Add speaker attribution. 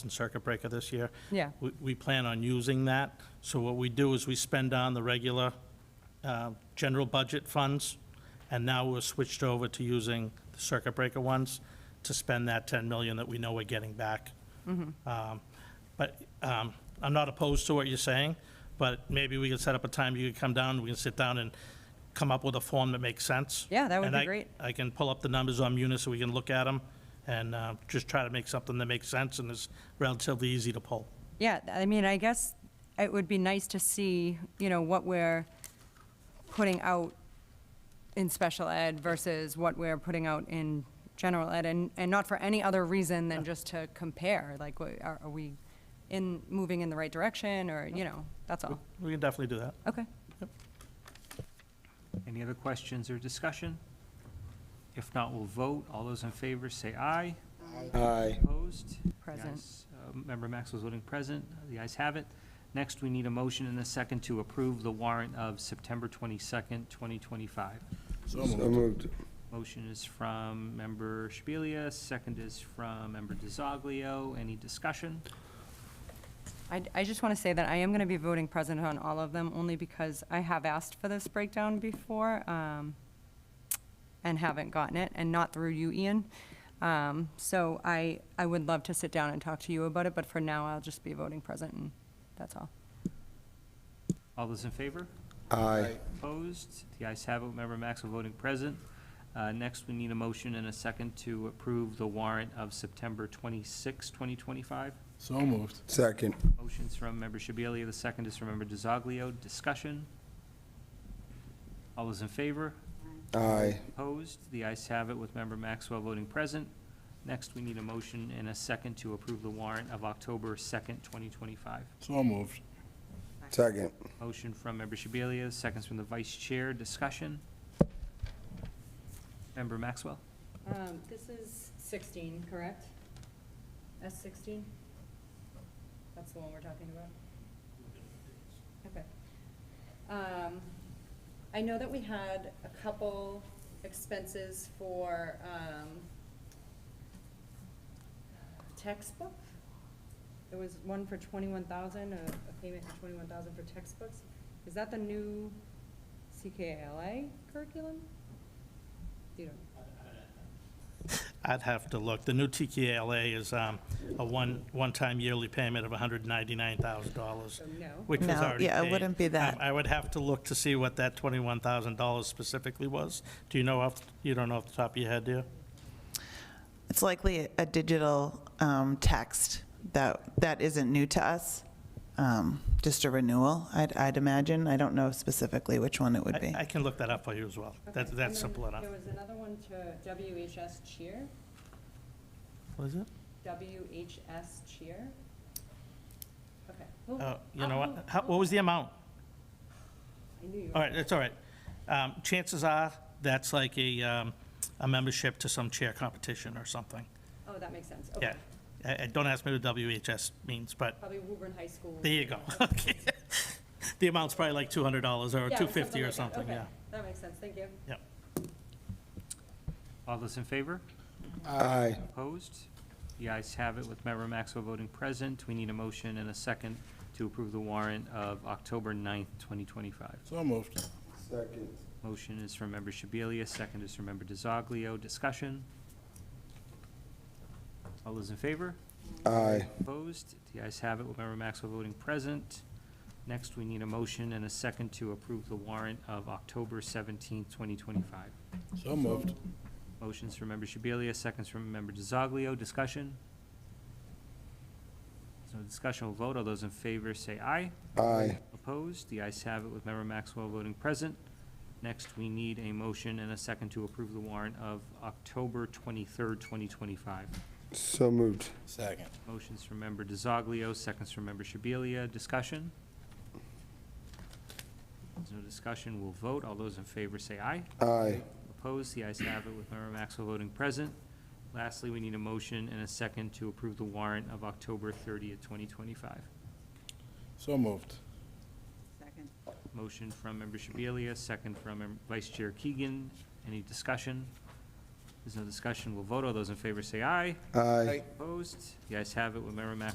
Speaker 1: and circuit breaker this year.
Speaker 2: Yeah.
Speaker 1: We, we plan on using that. So what we do is we spend on the regular uh, general budget funds, and now we're switched over to using the circuit breaker ones to spend that 10 million that we know we're getting back. Um, But um, I'm not opposed to what you're saying, but maybe we can set up a time you can come down, we can sit down and come up with a form that makes sense.
Speaker 2: Yeah, that would
Speaker 1: And
Speaker 2: be
Speaker 1: I-
Speaker 2: great.
Speaker 1: I can pull up the numbers on Munis so we can look at them and uh, just try to make something that makes sense and is relatively easy to pull.
Speaker 2: Yeah, I mean, I guess it would be nice to see, you know, what we're putting out in special ed versus what we're putting out in general ed, and, and not for any other reason than just to compare, like, wha- are, are we in, moving in the right direction, or, you know, that's all.
Speaker 1: We can definitely do that.
Speaker 2: Okay.
Speaker 3: Any other questions or discussion? If not, we'll vote. All those in favor say aye.
Speaker 4: Aye.
Speaker 3: Opposed? The
Speaker 2: Present.
Speaker 3: ayes, uh, Member Maxwell's voting present. The ayes have it. Next, we need a motion and a second to approve the warrant of September 22nd, 2025.
Speaker 4: So moved.
Speaker 3: Motion is from Member Shabilia, second is from Member DiZoglio. Any discussion?
Speaker 2: I, I just want to say that I am going to be voting present on all of them, only because I have asked for this breakdown before, um, and haven't gotten it, and not through you, Ian. Um, so I, I would love to sit down and talk to you about it, but for now, I'll just be voting present, and that's all.
Speaker 3: All those in favor?
Speaker 4: Aye.
Speaker 3: Opposed? The ayes have it. Member Maxwell voting present. Uh, Next, we need a motion and a second to approve the warrant of September 26, 2025.
Speaker 5: So moved.
Speaker 4: Second.
Speaker 3: Motion's from Member Shabilia, the second is from Member DiZoglio. Discussion? All those in favor?
Speaker 4: Aye.
Speaker 3: Opposed? The ayes have it with Member Maxwell voting present. Next, we need a motion and a second to approve the warrant of October 2nd, 2025.
Speaker 5: So moved.
Speaker 4: Second.
Speaker 3: Motion from Member Shabilia, seconds from the Vice Chair. Discussion? Member Maxwell?
Speaker 6: Um, This is 16, correct? S16? That's the one we're talking about? Okay. Um, I know that we had a couple expenses for um, textbook. There was one for 21,000, a a payment for 21,000 for textbooks. Is that the new CKLA curriculum? You don't
Speaker 1: I'd have to look. The new TKLA is um, a one, one-time yearly payment of $199,000,
Speaker 6: So no.
Speaker 1: which was
Speaker 7: No,
Speaker 1: already
Speaker 7: yeah, it
Speaker 1: paid.
Speaker 7: wouldn't be that.
Speaker 1: Um, I would have to look to see what that $21,000 specifically was. Do you know off, you don't know off the top of your head, do you?
Speaker 7: It's likely a digital um, text that, that isn't new to us, um, just a renewal, I'd, I'd imagine. I don't know specifically which one it would be.
Speaker 1: I- I can look that up for you as well. That-
Speaker 6: Okay, and
Speaker 1: That's
Speaker 6: then
Speaker 1: simple enough.
Speaker 6: There was another one to WHS cheer,
Speaker 1: What is it?
Speaker 6: WHS cheer. Okay. well,
Speaker 1: Oh, You know
Speaker 6: I'll-
Speaker 1: what? How- What was the amount?
Speaker 6: I knew you were.
Speaker 1: All right, that's all right. Um, Chances are, that's like a, um, a membership to some chair competition or something.
Speaker 6: Oh, that makes sense.
Speaker 1: Yeah.
Speaker 6: Okay.
Speaker 1: Uh, uh, Don't ask me what WHS means, but
Speaker 6: Probably Woburn High School.
Speaker 1: there you go. Okay. The amount's probably like $200 or
Speaker 6: Yeah,
Speaker 1: 250 or
Speaker 6: like that.
Speaker 1: something,
Speaker 6: Okay,
Speaker 1: yeah.
Speaker 6: That makes sense, thank you.
Speaker 1: Yep.
Speaker 3: All those in favor?
Speaker 4: Aye.
Speaker 3: Opposed? The ayes have it with Member Maxwell voting present. We need a motion and a second to approve the warrant of October 9th, 2025.
Speaker 5: So moved.
Speaker 4: Second.
Speaker 3: Motion is from Member Shabilia, second is from Member DiZoglio. Discussion? All those in favor?
Speaker 4: Aye.
Speaker 3: Opposed? The ayes have it with Member Maxwell voting present. Next, we need a motion and a second to approve the warrant of October 17th, 2025.
Speaker 5: So moved.
Speaker 3: Motion's from Member Shabilia, seconds from Member DiZoglio. Discussion? There's no discussion, we'll vote. All those in favor say aye.
Speaker 4: Aye.
Speaker 3: Opposed? The ayes have it with Member Maxwell voting present. Next, we need a motion and a second to approve the warrant of October 23rd, 2025.
Speaker 4: So moved.
Speaker 5: Second.
Speaker 3: Motion's from Member DiZoglio, seconds from Member Shabilia. Discussion? There's no discussion, we'll vote. All those in favor say aye.
Speaker 4: Aye.
Speaker 3: Opposed, the ayes have it with Member Maxwell voting present. Lastly, we need a motion and a second to approve the warrant of October 30th, 2025.
Speaker 5: So moved.
Speaker 3: Motion from Member Shabilia, second from Mem- Vice Chair Keegan. Any discussion? There's no discussion, we'll vote. All those in favor say aye.
Speaker 4: Aye.
Speaker 3: Opposed, the ayes have it with Member Maxwell